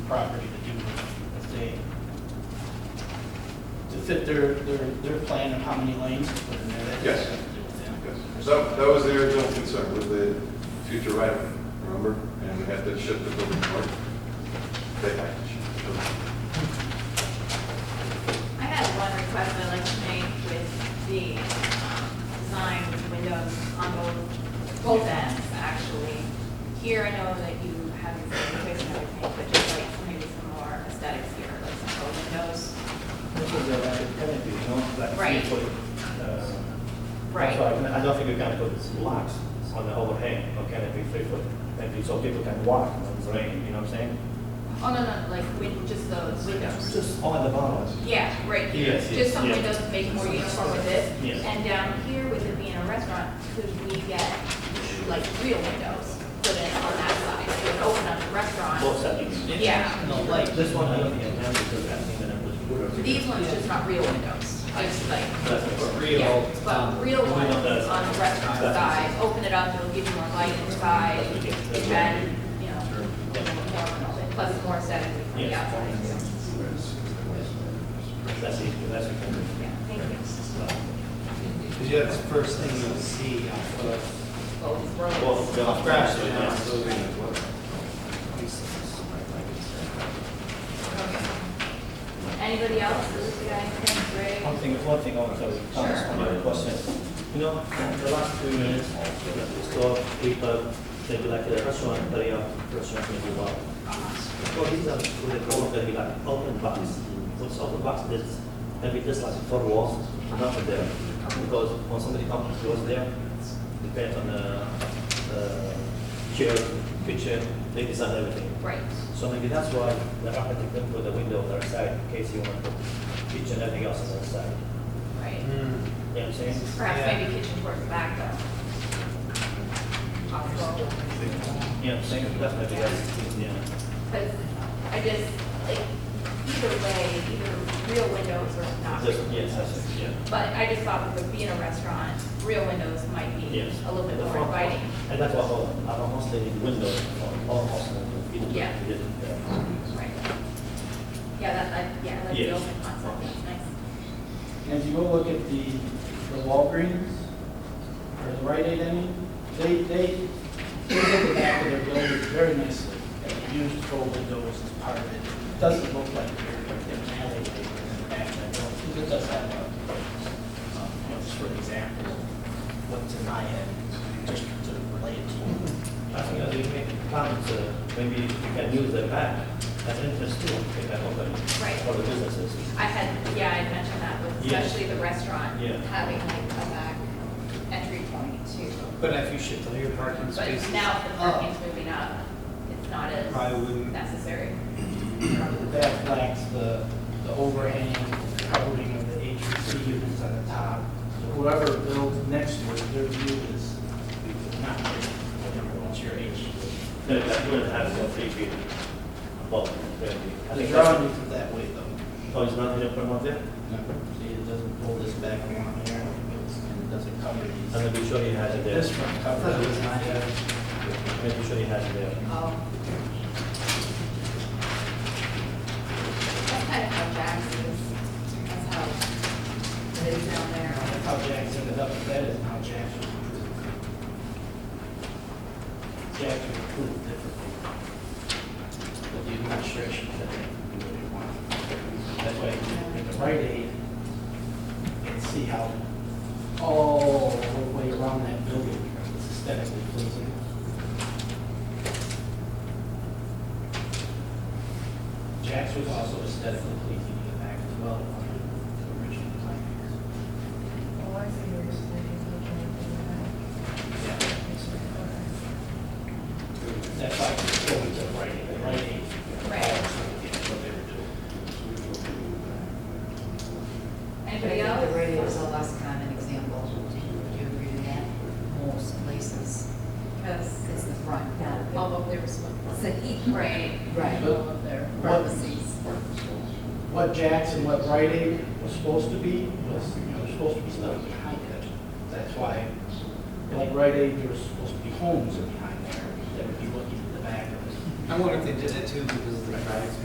property to do if they, to fit their, their, their plan of how many lanes to put in there. that Yes. has to do with them. Yes. That, that was the original concern, was the future right, remember? And we had to shift the building north. They had to shift the building. I had one request I'd like to make with the um, design windows on both, both ends, actually. Here, I know that you have your presentation and everything, but just like maybe some more aesthetics here, like some bow windows. This is a, academic, you know, like Right. three foot, uh, Right. So I I don't think you can put blocks on the overhang, or can it be three foot? Maybe so people can walk in the rain, you know what I'm saying? Oh, no, no, like win, just those windows. Just on the bottom. Yeah, right here, Yes, yes, just some yeah. windows to make it more uniform with this. Yes. And down here with it being a restaurant, could we get like real windows put in on that side, so it would open up the restaurant? Both sides. Yeah. No, like, This one, I don't think I can because I think that I'm really good. These ones just not real windows, just like, That's it. real, yeah, but um, real ones on the windows. restaurant That's- side, open it up, it'll give you more light inside, and then, you know, more, plus it's more aesthetic on the Yes. outside. That's it, that's it. Yeah, thank you. because yeah, it's the first thing you'll see off of, Both rows. Both, yeah. off Grafton, Oh, yeah, Yeah. so- Okay. Anybody else, this guy, Greg? One thing, one thing also, Thomas, Sure. on your question. You know, the last few minutes, the store, people, they be like a restaurant, area, restaurant, maybe bar. So these are, what they call, they be like open box. What's open box is, maybe just like four walls, not there. Because when somebody comes, goes there, depends on the, uh, chair, kitchen, they design everything. Right, So maybe that's why the architect didn't put the window on the other side, in case you want to put kitchen and everything else on the other side. right. You know what I'm saying? Perhaps Yeah. maybe kitchen towards the back though. Possible. Yeah, I'm saying, that's maybe that's, yeah. Because I just, like, either way, either real windows or not. Just, yes, that's it, yeah. But I just thought with being a restaurant, real windows might be Yes. a little bit And the more front- inviting. And that's what all, our host did, windows, for all host, you know, Yeah. we did, yeah. Right. Yeah, that, I, yeah, I like the Yes. open concept, that's nice. And if you go look at the, the Walgreens, or the Rite Aid, I mean, they, they, they look at that with their building very nicely. They have beautiful windows as part of it. It doesn't look like they're, they're an alleyway in the back of that building. Because it does have a, um, you know, just for example, what's in my head, just to relate it to. I think as you make plans, uh, maybe you can use the back as entrance too, if that open. Right. For the businesses. I had, yeah, I had mentioned that with Yes. especially the restaurant, Yeah. having like a back entry point too. But if you shift all your parking spaces. But now if the parking's moving up, it's not I as wouldn't, necessary. That lacks the, the overhang covering of the HVAC units on the top. So Whoever builds next to it, their view is not great, whatever, what's your H. E No, that wouldn't have the free view. Well, maybe. I The think drawing that's, is that way though. oh, it's not in the front there? See, it doesn't pull this back along here, and it doesn't cover I'm these. gonna be sure he has it there. This one covers it, not that. Maybe sure he has it there. Oh. That's kind of how Jax is, that's how it is down there. How Jack's ended up, that is how Jack's. was approved. Jack's was approved differently. But the administration said that we really want. That way, with the right aid, and see how all the way around that building is aesthetically pleasing. Jack's was also aesthetically pleasing in the back as well, on the original plan. Oh, I see what you're saying, Yeah, he's looking at the That's back. like going to writing, the writing. Right. What they were doing. Anybody But I think else? The radio is a less common example. Do you agree with that? Most places, Because it's the front, not although there was the one. seat. Right. Right. But- All of their Not the seats. What Jackson, what writing was supposed to be, was, you know, supposed to be stuff behind it. That's why, like Rite Aid, there was supposed to be homes behind there that would be looking at the back of it. I wonder if they did that too because of the traffic.